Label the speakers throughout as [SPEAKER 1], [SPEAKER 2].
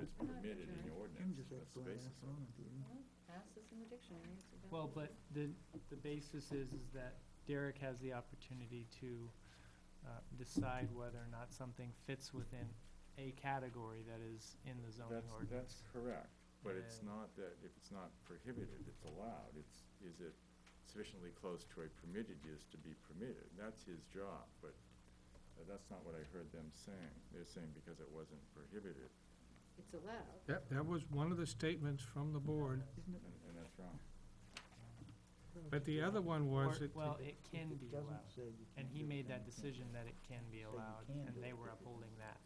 [SPEAKER 1] is permitted in the ordinance, that's the basis of it.
[SPEAKER 2] House is in the dictionary. it's a
[SPEAKER 3] Well, but
[SPEAKER 2] definition.
[SPEAKER 3] the, the basis is, is that Derek has the opportunity to uh, decide whether or not something fits within a category that is in the zoning
[SPEAKER 1] That's, that's
[SPEAKER 3] ordinance.
[SPEAKER 1] correct, but it's
[SPEAKER 3] And-
[SPEAKER 1] not that, if it's not prohibited, it's allowed, it's, is it sufficiently close to a permitted use to be permitted? That's his job, but uh, that's not what I heard them saying. They're saying because it wasn't prohibited,
[SPEAKER 2] It's allowed.
[SPEAKER 4] That, that was one of the statements from the board,
[SPEAKER 1] and, and that's wrong.
[SPEAKER 4] but the other one
[SPEAKER 3] Or,
[SPEAKER 4] was that,
[SPEAKER 3] well, it can be allowed,
[SPEAKER 5] Doesn't say you
[SPEAKER 3] and
[SPEAKER 5] can't
[SPEAKER 3] he
[SPEAKER 5] do it,
[SPEAKER 3] made
[SPEAKER 5] then you can't.
[SPEAKER 3] that decision that it can be allowed,
[SPEAKER 5] can
[SPEAKER 3] and
[SPEAKER 5] do
[SPEAKER 3] they
[SPEAKER 5] it.
[SPEAKER 3] were upholding that.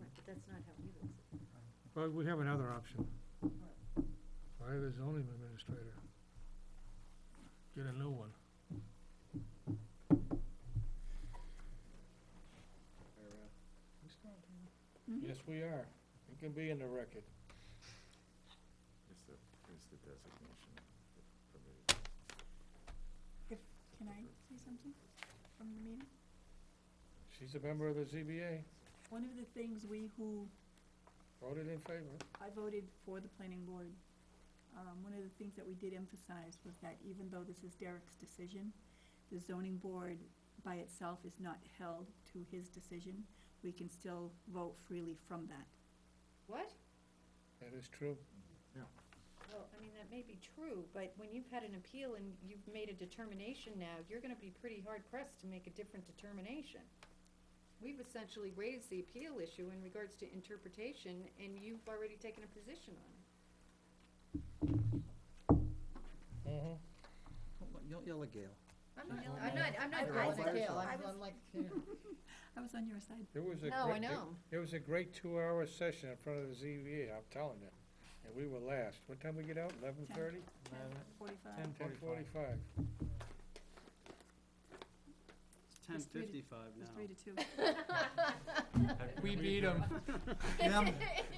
[SPEAKER 2] Right, but that's not how he looks at it.
[SPEAKER 4] well, we have another option. Fire the zoning administrator. Get a new one.
[SPEAKER 2] Mm-hmm.
[SPEAKER 4] Yes, we are. It can be in the record.
[SPEAKER 1] It's the, it's the designation of permitted.
[SPEAKER 6] Can I say something from the meeting?
[SPEAKER 4] She's a member of the ZBA,
[SPEAKER 6] One of the things we who,
[SPEAKER 4] voted in favor.
[SPEAKER 6] I voted for the planning board, um, one of the things that we did emphasize was that even though this is Derek's decision, the zoning board by itself is not held to his decision. We can still vote freely from that.
[SPEAKER 2] What?
[SPEAKER 4] That is true.
[SPEAKER 2] Well, I mean, that may be true, but when you've had an appeal and you've made a determination now, you're gonna be pretty hard pressed to make a different determination. We've essentially raised the appeal issue in regards to interpretation, and you've already taken a position on it.
[SPEAKER 4] Mm-hmm.
[SPEAKER 5] Don't yell at Gail.
[SPEAKER 2] I'm
[SPEAKER 5] She's
[SPEAKER 2] not,
[SPEAKER 5] not
[SPEAKER 2] I'm not, I'm
[SPEAKER 6] I-
[SPEAKER 2] not
[SPEAKER 6] I
[SPEAKER 2] calling
[SPEAKER 6] was-
[SPEAKER 2] it Gail,
[SPEAKER 6] I
[SPEAKER 2] I'm,
[SPEAKER 6] was-
[SPEAKER 2] I'm like,
[SPEAKER 6] I was on your side.
[SPEAKER 4] There was a
[SPEAKER 2] no, Oh, I
[SPEAKER 4] great, there-
[SPEAKER 2] know.
[SPEAKER 4] there was a great two-hour session in front of the ZBA, I'm telling you, and we were last. What time we get out? Eleven thirty?
[SPEAKER 3] Ten
[SPEAKER 6] Forty-five.
[SPEAKER 4] Ten
[SPEAKER 3] forty-five.
[SPEAKER 4] forty-five.
[SPEAKER 7] It's ten
[SPEAKER 6] It's three to-
[SPEAKER 7] fifty-five
[SPEAKER 6] It's three
[SPEAKER 7] now.
[SPEAKER 6] to two.
[SPEAKER 3] We beat him.
[SPEAKER 1] Can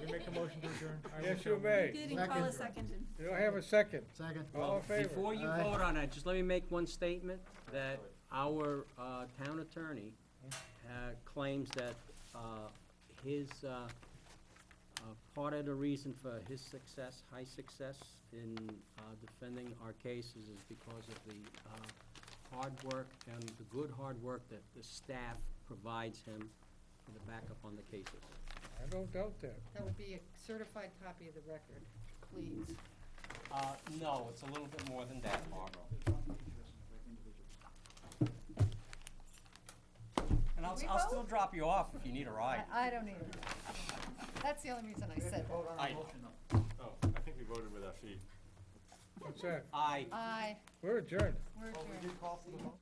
[SPEAKER 1] we make a motion to adjourn?
[SPEAKER 4] Yes, you may.
[SPEAKER 6] You did, and Paula
[SPEAKER 5] Second.
[SPEAKER 6] seconded.
[SPEAKER 4] You don't have a second.
[SPEAKER 5] Second.
[SPEAKER 4] All in favor?
[SPEAKER 7] Before you
[SPEAKER 5] Aye.
[SPEAKER 7] vote on it, just let me make one statement, that our uh, town attorney
[SPEAKER 4] Mm-hmm.
[SPEAKER 7] uh, claims that uh, his, uh, uh, part of the reason for his success, high success in uh, defending our cases is because of the uh, hard work and the good hard work that the staff provides him for the backup on the cases.
[SPEAKER 4] I don't doubt that.
[SPEAKER 2] That would be a certified copy of the record, please.
[SPEAKER 7] Uh, no, it's a little bit more than that, Margot. And I'll,
[SPEAKER 2] Did we
[SPEAKER 7] I'll still
[SPEAKER 2] vote?
[SPEAKER 7] drop you off if you need a ride.
[SPEAKER 2] I, I don't either. That's the only reason I said that.
[SPEAKER 7] I,
[SPEAKER 1] Oh, I think we voted with our feet.
[SPEAKER 4] What's that?
[SPEAKER 7] I
[SPEAKER 2] Aye,
[SPEAKER 4] We're adjourned.
[SPEAKER 2] we're adjourned.